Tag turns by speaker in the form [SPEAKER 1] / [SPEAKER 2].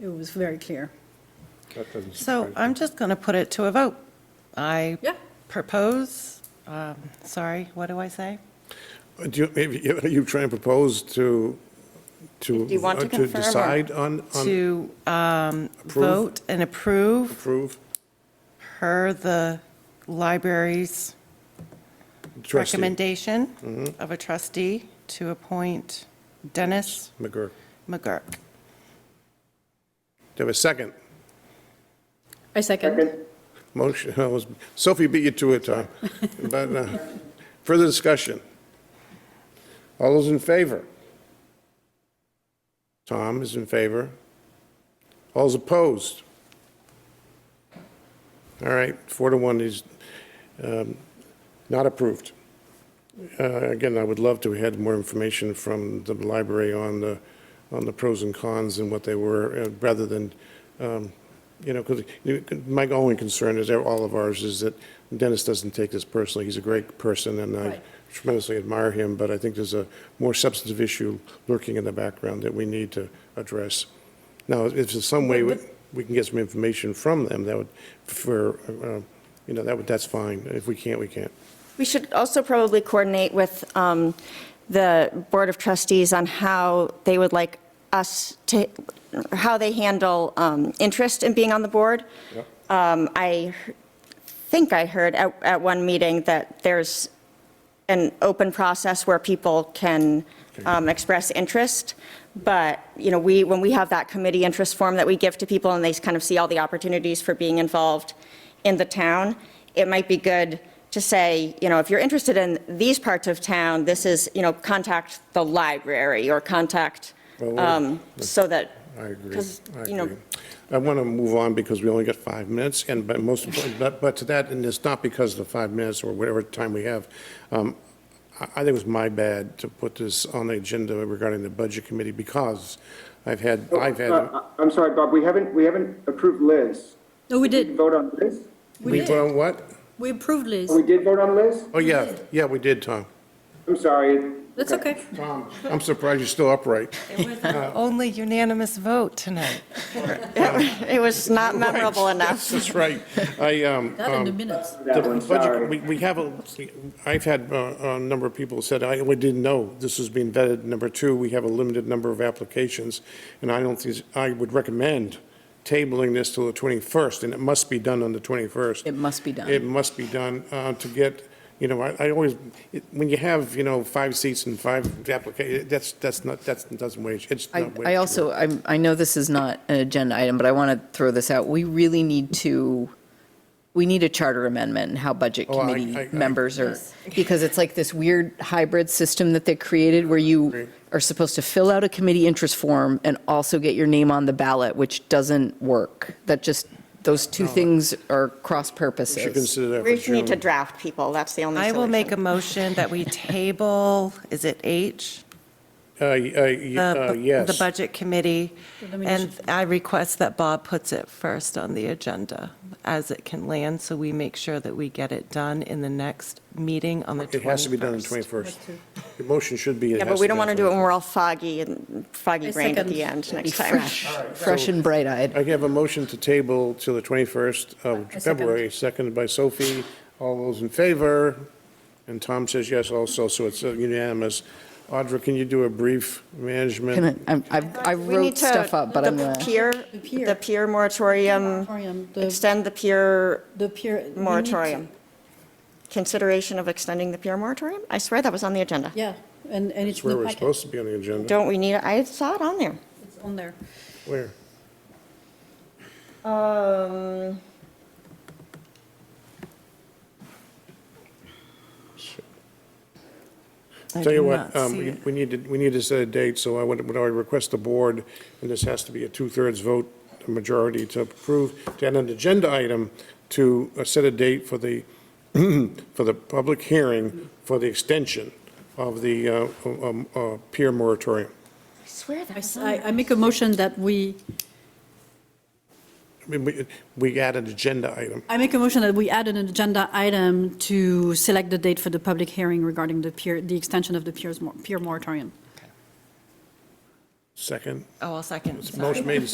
[SPEAKER 1] It was very clear.
[SPEAKER 2] That doesn't
[SPEAKER 3] So
[SPEAKER 2] surprise me.
[SPEAKER 3] I'm just going to put it to a vote. I
[SPEAKER 1] Yeah.
[SPEAKER 3] propose, um, sorry, what do I say?
[SPEAKER 2] Do you, if you- you try and propose to, to.
[SPEAKER 4] Do you want to
[SPEAKER 2] uh,
[SPEAKER 4] confirm or-
[SPEAKER 2] decide on, on
[SPEAKER 3] To um,
[SPEAKER 2] Approve.
[SPEAKER 3] vote and approve
[SPEAKER 2] approve,
[SPEAKER 3] per the library's
[SPEAKER 2] trustee Mm-hmm.
[SPEAKER 3] recommendation of a trustee to appoint Dennis
[SPEAKER 2] McGurk? Do
[SPEAKER 3] McGurk.
[SPEAKER 2] you have a second?
[SPEAKER 1] I second.
[SPEAKER 2] Motion, uh, was- Sophie beat you to it, Tom. But, uh, further discussion? All those in favor? Tom is in favor. All's opposed? All right, four to one is um, not approved. Uh, Again, I would love to have had more information from the library on the, on the pros and cons and what they were, uh, rather than, um, you know, because my only concern is, all of ours, is that Dennis doesn't take this personally. He's a great person, and I
[SPEAKER 1] Right.
[SPEAKER 2] tremendously admire him, but I think there's a more substantive issue lurking in the background that we need to address. Now, if there's some way we- we can get some information from them, that would, for, uh, you know, that would, that's fine. If we can't, we can't.
[SPEAKER 4] We should also probably coordinate with um, the Board of Trustees on how they would like us to, how they handle um, interest in being on the board. Um, I he- think I heard at, at one meeting that there's an open process where people can um, express interest, but, you know, we, when we have that committee interest form that we give to people and they kind of see all the opportunities for being involved in the town, it might be good to say, you know, if you're interested in these parts of town, this is, you know, contact the library or contact,
[SPEAKER 2] Well, what-
[SPEAKER 4] um, so that.
[SPEAKER 2] I agree.
[SPEAKER 4] Because,
[SPEAKER 2] I
[SPEAKER 4] you know-
[SPEAKER 2] agree. I want to move on because we only got five minutes, and, but most, important- but, but to that, and it's not because of the five minutes or whatever time we have. um, I, I think it was my bad to put this on the agenda regarding the Budget Committee because I've had, I've had,
[SPEAKER 5] Uh, I- I'm sorry, Bob, we haven't, we haven't approved Liz.
[SPEAKER 1] No, we
[SPEAKER 5] Did you
[SPEAKER 1] did.
[SPEAKER 5] vote on Liz?
[SPEAKER 1] We
[SPEAKER 2] Well,
[SPEAKER 1] did.
[SPEAKER 2] what?
[SPEAKER 1] We approved Liz.
[SPEAKER 5] We did vote on Liz?
[SPEAKER 2] Oh, yeah, yeah, we did, Tom.
[SPEAKER 5] I'm sorry.
[SPEAKER 1] That's okay.
[SPEAKER 2] Tom, I'm surprised you're still upright.
[SPEAKER 3] Only unanimous vote tonight.
[SPEAKER 4] It was not memorable enough.
[SPEAKER 2] That's right. I, um,
[SPEAKER 1] Not in the minutes.
[SPEAKER 5] That
[SPEAKER 2] The
[SPEAKER 5] one,
[SPEAKER 2] budget-
[SPEAKER 5] sorry.
[SPEAKER 2] We, we have, a- I've had uh, a number of people said, I, we didn't know this was being vetted. Number two, we have a limited number of applications, and I don't think, I would recommend tabling this till the 21st, and it must be done on the 21st.
[SPEAKER 1] It must be done.
[SPEAKER 2] It must be done uh, to get, you know, I, I always, it- when you have, you know, five seats and five applica, that's, that's not, that's, doesn't wage, it's
[SPEAKER 6] I,
[SPEAKER 2] not wage.
[SPEAKER 6] I also, I, I know this is not an agenda item, but I want to throw this out. We really need to, we need a charter amendment and how budget
[SPEAKER 2] Oh, I- I- I-
[SPEAKER 6] committee members are, because it's like this weird hybrid system that they created where you are supposed to fill out a committee interest form and also get your name on the ballot, which doesn't work. That just, those two things are cross
[SPEAKER 2] We should
[SPEAKER 6] purposes.
[SPEAKER 2] consider that
[SPEAKER 4] We
[SPEAKER 2] for
[SPEAKER 4] just need to
[SPEAKER 2] June.
[SPEAKER 4] draft people, that's the only
[SPEAKER 3] I
[SPEAKER 4] solution.
[SPEAKER 3] will make a motion that we table, is it H?
[SPEAKER 2] Uh,
[SPEAKER 3] the
[SPEAKER 2] uh, uh,
[SPEAKER 3] bu-
[SPEAKER 2] yes.
[SPEAKER 3] The Budget Committee,
[SPEAKER 1] Let me
[SPEAKER 3] and I request that Bob puts it first on the agenda as it can land, so we make sure that we get it done in the next meeting on the 21st.
[SPEAKER 2] It has to be done on the 21st. The motion should be.
[SPEAKER 4] Yeah, but we don't want to do it when we're all foggy and foggy-brained at the end next time.
[SPEAKER 6] Fresh, fresh and bright-eyed.
[SPEAKER 2] I have a motion to table till the 21st
[SPEAKER 1] I
[SPEAKER 2] of
[SPEAKER 1] second.
[SPEAKER 2] February, seconded by Sophie. All those in favor? And Tom says yes also, so it's uh, unanimous. Audra, can you do a brief
[SPEAKER 6] Can
[SPEAKER 2] management?
[SPEAKER 6] I- I'm- I've- I
[SPEAKER 4] We need
[SPEAKER 6] wrote
[SPEAKER 4] to-
[SPEAKER 6] stuff up, but I'm
[SPEAKER 4] the
[SPEAKER 6] going to.
[SPEAKER 4] peer,
[SPEAKER 1] peer.
[SPEAKER 4] the peer moratorium,
[SPEAKER 1] Moratorium, the-
[SPEAKER 4] extend the peer
[SPEAKER 1] The peer. we need to-
[SPEAKER 4] moratorium. Consideration of extending the peer moratorium? I swear that was on the agenda.
[SPEAKER 1] Yeah, and, and it's
[SPEAKER 2] Where
[SPEAKER 1] in the
[SPEAKER 2] we're
[SPEAKER 1] packet.
[SPEAKER 2] supposed to be on the agenda?
[SPEAKER 4] Don't we need, it? I saw it on there.
[SPEAKER 1] It's on there.
[SPEAKER 2] Where?
[SPEAKER 4] Um,
[SPEAKER 3] I
[SPEAKER 2] Tell you
[SPEAKER 3] do
[SPEAKER 2] what,
[SPEAKER 3] not
[SPEAKER 2] um,
[SPEAKER 3] see
[SPEAKER 2] we-
[SPEAKER 3] it.
[SPEAKER 2] we need to, we need to set a date, so I would, would I request the board, and this has to be a two-thirds vote, a majority to approve, to add an agenda item to uh, set a date for the, for the public hearing for the extension of the uh, um, uh, peer moratorium.
[SPEAKER 4] I swear that
[SPEAKER 1] I,
[SPEAKER 4] was
[SPEAKER 1] s-
[SPEAKER 4] on there.
[SPEAKER 1] I- I make a motion that we,
[SPEAKER 2] I mean, we- We add an agenda item.
[SPEAKER 1] I make a motion that we add an agenda item to select the date for the public hearing regarding the peer, the extension of the peers, mor- peer moratorium.
[SPEAKER 2] Second,
[SPEAKER 3] Oh, I'll second.
[SPEAKER 2] It's a
[SPEAKER 3] sorry.
[SPEAKER 2] motion made and